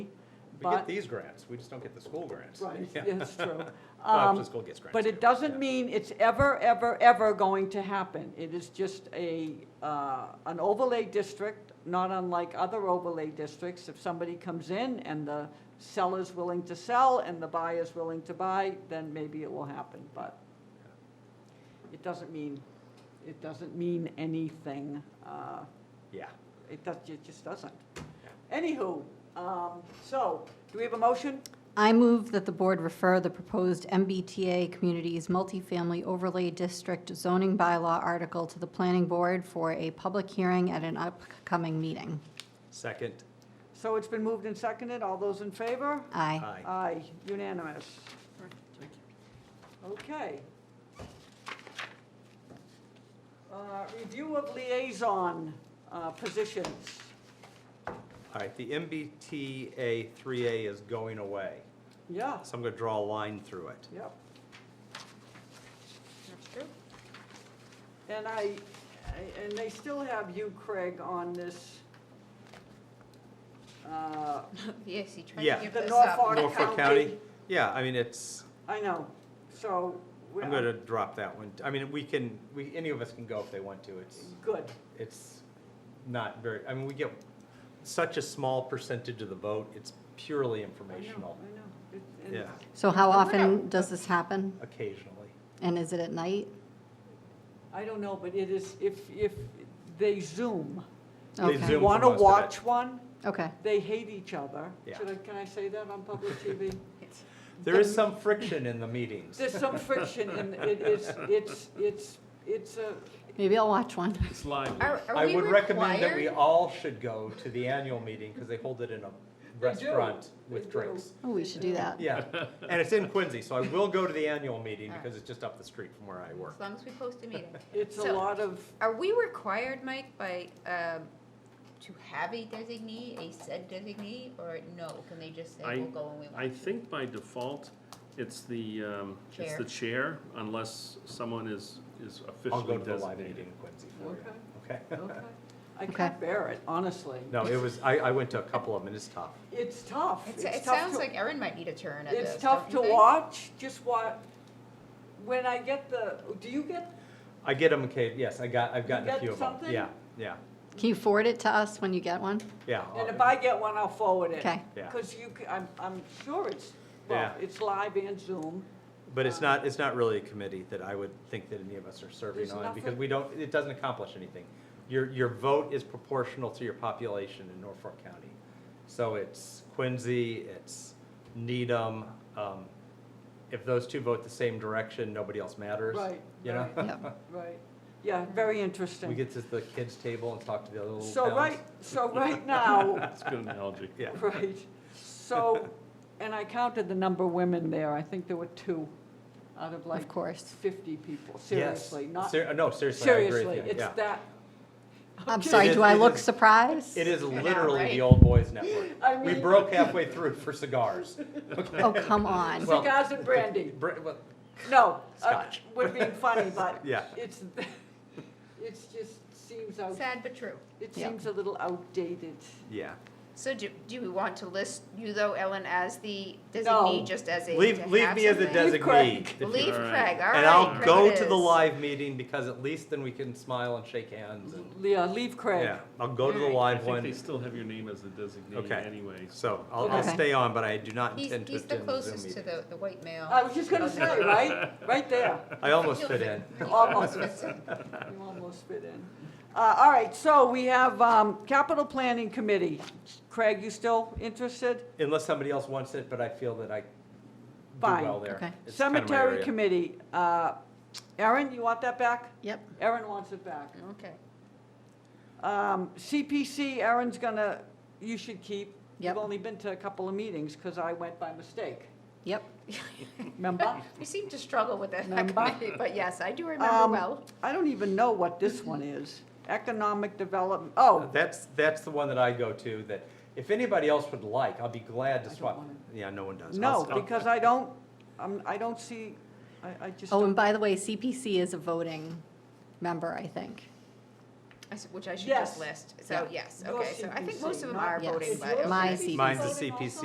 We get but, these grants, we just don't get the school grants. right, Yeah. it's true. Well, Um, the school gets grants. But too, it doesn't yeah. mean it's ever, ever, ever going to happen. It is just a, uh, an overlay district, not unlike other overlay districts. If somebody comes in and the seller's willing to sell and the buyer's willing to buy, then maybe it will happen, but it doesn't mean, it doesn't mean anything. uh, Yeah. It does, it just doesn't. Anywho, um, so, do we have a motion? I move that the board refer the proposed MBTA Communities Multifamily Overlay District zoning bylaw article to the planning board for a public hearing at an upcoming meeting. Second, So it's been moved and seconded. All those in favor? Aye. aye. Aye, unanimous. Okay. Uh, Review of liaison uh, positions. All right, the MBTA 3A is going away, Yeah, so I'm going to draw a line through it. yep. And I, I- and they still have you, Craig, on this, uh, Yes, he tried Yeah. to give The this up. Norfolk- Norfolk County, County. yeah, I mean, it's, I know, so. we- I'm going to drop that one. I mean, we can, we, any of us can go if they want to. It's, Good, it's not very, I mean, we get such a small percentage of the vote, it's I purely know, I know. informational, It- and- yeah, So how But we're often not- does this happen? occasionally. And is it at night? I don't know, but it is, if, if they Zoom, They Okay. Zoom for want to most of it. watch one, Okay. they hate each other. Yeah. Should I, can I say that on public TV? There is some friction in the meetings. There's some friction and it is, it's, it's, it's a, Maybe I'll watch one. It's live. Are, are I we would recommend that we required? all should go to the annual meeting because they hold it in a do. restaurant They with do. drinks. Oh, we should do that. Yeah, and it's in Quincy, so I will go to the annual meeting All right. because it's just up the street from where I work. As long as we post a meeting. it's a So- lot of, Are we required, Mike, by, um, to have a designee, a said designee, or no? Can they just say, I- we'll go when we want? I to"? think by default, it's the, um, it's Chair. the chair unless someone is, is I'll officially go to the live meeting designated. in Quincy for okay, you. Okay. okay. I can't bear it, honestly. No, it was, I, I went to a couple of them and it's tough. It's tough. It's- It's It tough sounds to- like Erin might need a turn at this. It's tough to don't you think? watch, just what, when I get the, do you get, I get them, okay, yes, I got, I've gotten a got few of them. something? Yeah, yeah, Can you forward it to us when you get one? yeah. Uh, and if I get one, I'll forward it. Okay. Yeah. Because you, c- I'm, I'm sure it's, well, Yeah. it's live and Zoom. But it's not, it's not really a committee that I would think that any of us are serving There's on, because nothing- we don't, it doesn't accomplish anything. Your, your vote is proportional to your population in Norfolk County. So it's Quincy, it's Needham, um, if those two vote the same direction, nobody else matters. Right, You know, Yep. Right, yeah, very we interesting. get to the kids' table and talk to the other little So towns. right, so right now, It's a good analogy. Yeah, Right, so, and I counted the number of women there, I think there were two out of like Of course. fifty people, yes. seriously, not, Ser- No, seriously, I agree seriously, with you, it's yeah. that. I'm Okay. sorry, is- do I it look is- surprised? It is Yeah, literally the right. old boys network. I We mean, broke halfway through for cigars. Okay. Oh, come on. Well- cigars and brandy, Br- well, no, uh, Scotch. would be funny, but Yeah. it's, it's just seems out, Sad but true. it Yeah. seems a little outdated. Yeah. So do, do we want to list you though, Ellen, as the No. designee, just as a? Leave, to leave have me as a something? Leave Craig. designee. if you- Leave All right. Craig, all right. And I'll Craig go it to the is. live meeting because at least then we can smile and shake hands and, Yeah, leave Craig, yeah, I'll go to the I live think they one. still have your name as the Okay. designee anyway. So I'll, I'll Okay. stay on, but I do not He's, intend to he's the attend the Zoom closest to meeting. the, the white male. I was just gonna say, right, right there. I almost fit in. Almost. You almost fit in. Uh, All right, so we have um, Capital Planning Committee. Craig, you still interested? Unless somebody else wants it, but I feel that I do Fine. well there. Okay. It's kind of my Cemetery area. Committee. Uh, Erin, you want that back? Yep. Erin wants it back. Okay. Um, CPC, Erin's gonna, you should keep. Yep. You've only been to a couple of meetings because I went by mistake, Yep. remember? We seem to struggle with that Remember? committee, but yes, I do remember Um, well. I don't even know what this one is. Economic Development, oh, Uh, That's, that's the one that I go to that if anybody else would like, I'll be glad I to don't swap. wanna- Yeah, no one does. I'll no, stop. because I don't, I'm- I don't see, I I just Oh, don't and by the way, CPC is a voting member, I think. I s- Which I should Yes. just list, so, yes, okay, so I think most of them Your are CPC, not- voting, Yes. but. okay. My CPC Mine's the voting also? CPC.